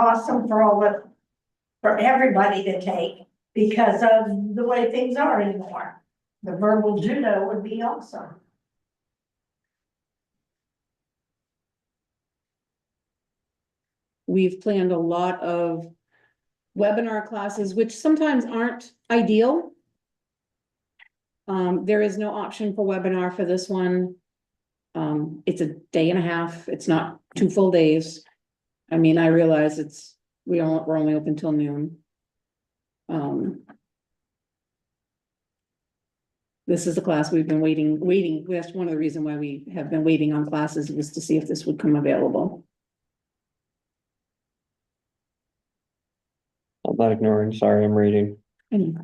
awesome for all of, for everybody to take because of the way things are anymore. The verbal judo would be awesome. We've planned a lot of webinar classes, which sometimes aren't ideal. Um, there is no option for webinar for this one. Um, it's a day and a half. It's not two full days. I mean, I realize it's, we don't, we're only open till noon. Um. This is a class we've been waiting, waiting. That's one of the reasons why we have been waiting on classes was to see if this would come available. I'm not ignoring, sorry, I'm reading. Anyway.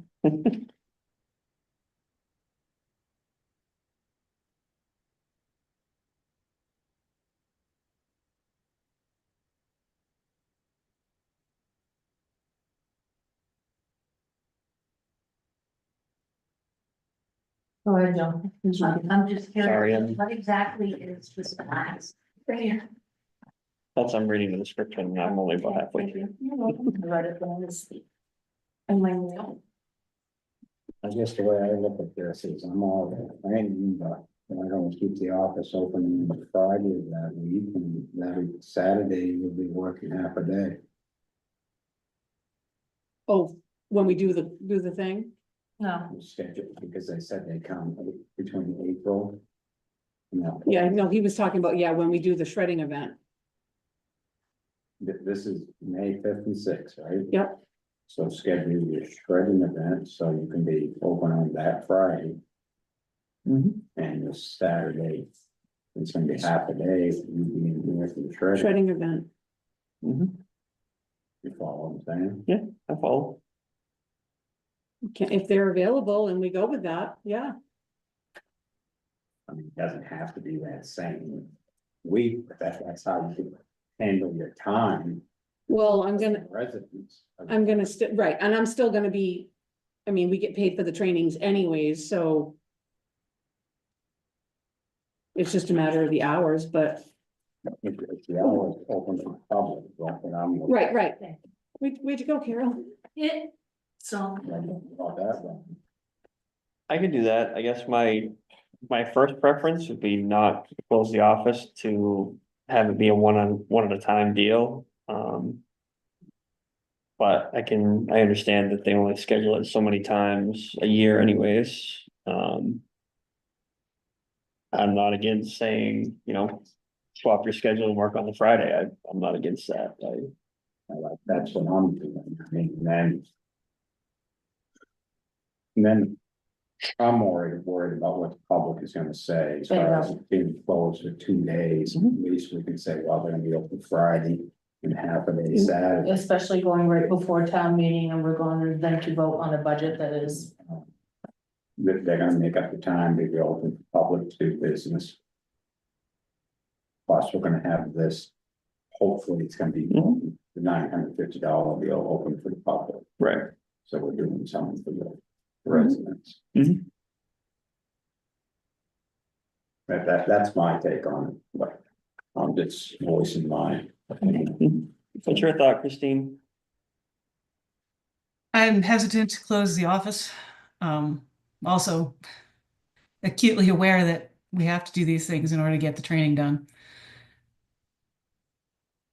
Go ahead, Joan. Mhm. I'm just Sorry, I'm- curious, what exactly is this class? That's, I'm reading the description, and I'm only about halfway through. You're welcome. I wrote it down this week. And my mail. I guess the way I look at this is I'm all, I ain't, but I don't keep the office open on Friday of that week and that Saturday you'll be working half a day. Oh, when we do the, do the thing? No, I'm scheduled because they said they come between April. No, Yeah, no, he was talking about, yeah, when we do the shredding event. th- this is May fifth and sixth, right? Yep. So schedule your shredding event so you can be open on that Friday Mm-hmm, and this Saturday. It's gonna be half a day, you'll be in here for the shredding, Shredding event. Mhm. you follow what I'm saying? I follow. Can, if they're available and we go with that, yeah. I mean, it doesn't have to be that same week, but that's, that's how you handle your time. Well, I'm gonna, Residents. of- I'm gonna still, right, and I'm still gonna be, I mean, we get paid for the trainings anyways, so. It's just a matter of the hours, but, If if the hour is open to the public, like when I'm. looking right, right. We, where'd you go, Carol? it, so. About that one. I could do that, I guess my, my first preference would be not to close the office to have it be a one on, one at a time deal, um. But I can, I understand that they only schedule it so many times a year anyways, um. I'm not against saying, you know, swap your schedule and work on the Friday, I, I'm not against that, I. I like, that's what I'm doing, I mean, then. and Then I'm worried, worried about what the public is gonna say, as far as it being closed for two days, at Mm-hmm. least we can say, well, they're gonna be open Friday. And half a Mm-hmm. day Saturday. Especially going right before town meeting and we're going then to vote on a budget that is. They're, they're gonna make up the time to be open for public to do business. Plus, we're gonna have this, hopefully, it's gonna be Mm-hmm. the nine hundred fifty dollar bill open for the public, Right. Mm-hmm. so we're doing something for the residents. Mhm. That, that, that's my take on it, but I'm just voicing my opinion. What's your thought, Christine? I'm hesitant to close the office. Um, also acutely aware that we have to do these things in order to get the training done.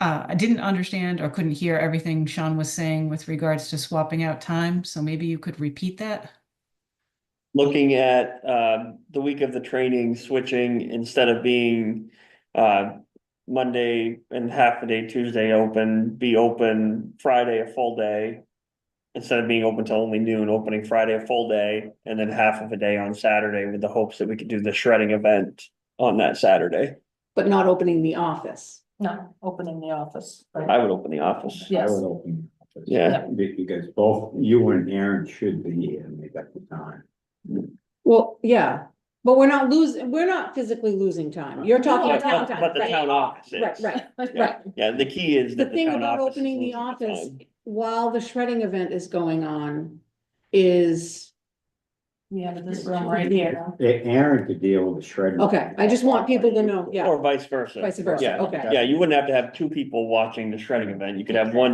Uh, I didn't understand or couldn't hear everything Sean was saying with regards to swapping out time, so maybe you could repeat that. looking at uh, the week of the training switching instead of being uh, Monday and half a day, Tuesday open, be open Friday a full day. Instead of being open till only noon, opening Friday a full day and then half of a day on Saturday with the hopes that we could do the shredding event on that Saturday. But not opening the office. No, opening the office. I would open the office. I Yes. would open. it up. Yeah. Be- Because both you and Aaron should be here and make up the time. Well, yeah, but we're not losing, we're not physically losing time. You're talking But about Oh, town but- time. but the right. town office is. Right, right, Yeah. right. Yeah, the key is The that. thing town about office is opening the losing office time. while the shredding event is going on is we have this room right here. Aaron could deal with the shredder. Okay, I just want people to know, yeah, Or vice versa. vice versa, Yeah. okay. Yeah, you wouldn't have to have two people watching the shredding event. You could have one